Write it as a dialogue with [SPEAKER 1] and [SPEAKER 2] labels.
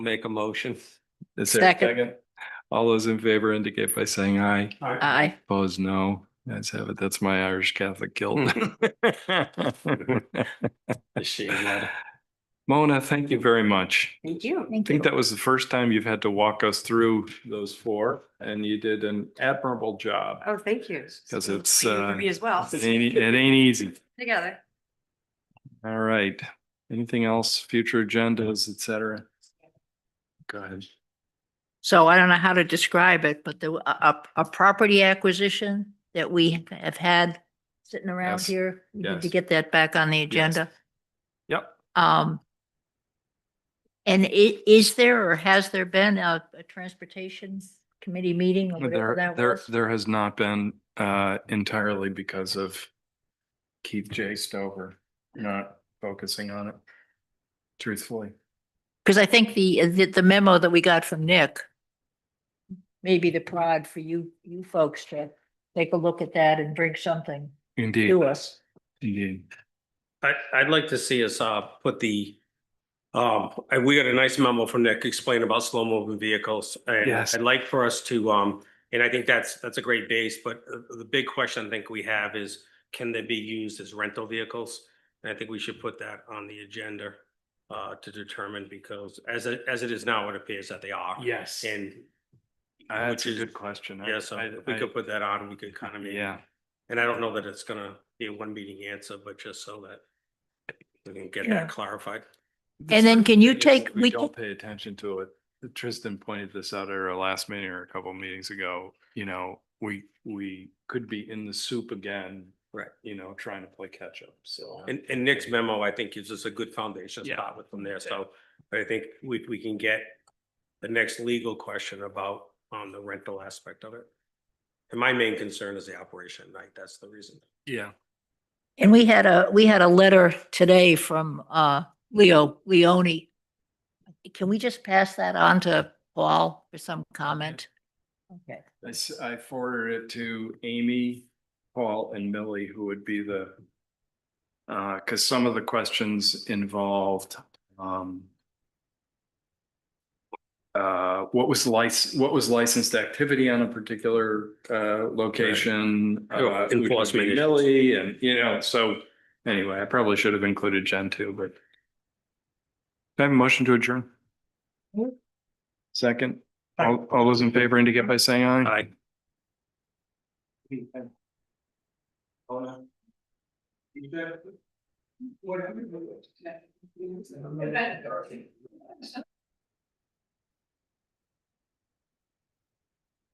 [SPEAKER 1] Make a motion.
[SPEAKER 2] Is there a
[SPEAKER 3] Second.
[SPEAKER 2] second? All those in favor indicate by saying aye.
[SPEAKER 3] Aye.
[SPEAKER 2] Opposed, no. That's have it. That's my Irish Catholic guilt.
[SPEAKER 1] Hmm. The shame letter.
[SPEAKER 2] Mona, thank you very much.
[SPEAKER 3] Thank you.
[SPEAKER 2] I think that was the first time you've had to walk us through those four and you did an admirable job.
[SPEAKER 3] Oh, thank you.
[SPEAKER 2] 'Cause it's,
[SPEAKER 3] You
[SPEAKER 2] uh,
[SPEAKER 3] for Me as well,
[SPEAKER 2] It ain't, it ain't easy.
[SPEAKER 3] together.
[SPEAKER 2] All right. Anything else, future agendas, et cetera? Go ahead.
[SPEAKER 4] So I don't know how to describe it, but the, a, a a property acquisition that we have had sitting around
[SPEAKER 2] Yes.
[SPEAKER 4] here, we need to
[SPEAKER 2] Yes.
[SPEAKER 4] get that back on the agenda.
[SPEAKER 2] Yep.
[SPEAKER 4] Um, and i- is there or has there been a, a transportation committee meeting or whatever
[SPEAKER 2] There,
[SPEAKER 4] that
[SPEAKER 2] there,
[SPEAKER 4] was?
[SPEAKER 2] there has not been, uh, entirely because of Keith J. Stover not focusing on it. Truthfully,
[SPEAKER 4] Because I think the, uh, the- the memo that we got from Nick may be the prod for you, you folks to take a look at that and bring something
[SPEAKER 2] indeed,
[SPEAKER 4] to us.
[SPEAKER 2] indeed.
[SPEAKER 1] I, I'd like to see us, uh, put the, um, I- we got a nice memo from Nick explaining about slow moving vehicles. And
[SPEAKER 2] Yes.
[SPEAKER 1] I'd like for us to, um, and I think that's, that's a great base, but uh, the big question I think we have is, can they be used as rental vehicles? And I think we should put that on the agenda, uh, to determine because as, it- as it is now, it appears that they are.
[SPEAKER 2] Yes.
[SPEAKER 1] And.
[SPEAKER 2] That's
[SPEAKER 1] which
[SPEAKER 2] a
[SPEAKER 1] is-
[SPEAKER 2] good question. I-
[SPEAKER 1] Yeah, so
[SPEAKER 2] I-
[SPEAKER 1] if we
[SPEAKER 2] I-
[SPEAKER 1] could put that on, we could kind of maybe.
[SPEAKER 2] Yeah,
[SPEAKER 1] And I don't know that it's gonna be a one meeting answer, but just so that we can get
[SPEAKER 4] Yeah.
[SPEAKER 1] that clarified.
[SPEAKER 4] And then can you
[SPEAKER 2] It is that
[SPEAKER 4] take, we can-
[SPEAKER 2] Don't pay attention to it. Tristan pointed this out at our last meeting or a couple of meetings ago, you know, we, we could be in the soup again.
[SPEAKER 1] Right.
[SPEAKER 2] You know, trying to play catch up, so.
[SPEAKER 1] And, and Nick's memo, I think, gives us a good foundation to
[SPEAKER 2] Yeah.
[SPEAKER 1] start with from there. So I think we, we can get the next legal question about on the rental aspect of it. And my main concern is the operation at night. That's the reason.
[SPEAKER 2] Yeah.
[SPEAKER 4] And we had a, we had a letter today from uh Leo Leoni. Can we just pass that on to Paul for some comment? Okay,
[SPEAKER 2] I, s- I forwarded it to Amy, Paul and Millie, who would be the. Uh, cause some of the questions involved, um. Uh, what was lic- what was licensed activity on a particular, uh, location?
[SPEAKER 1] Right. Oh,
[SPEAKER 2] uh, who would be
[SPEAKER 1] enforcement issues.
[SPEAKER 2] Millie and, you know, so anyway, I probably should have included Jen too, but. Do I have a motion to adjourn? Second, all, all those in favor indicate by saying aye.
[SPEAKER 1] I,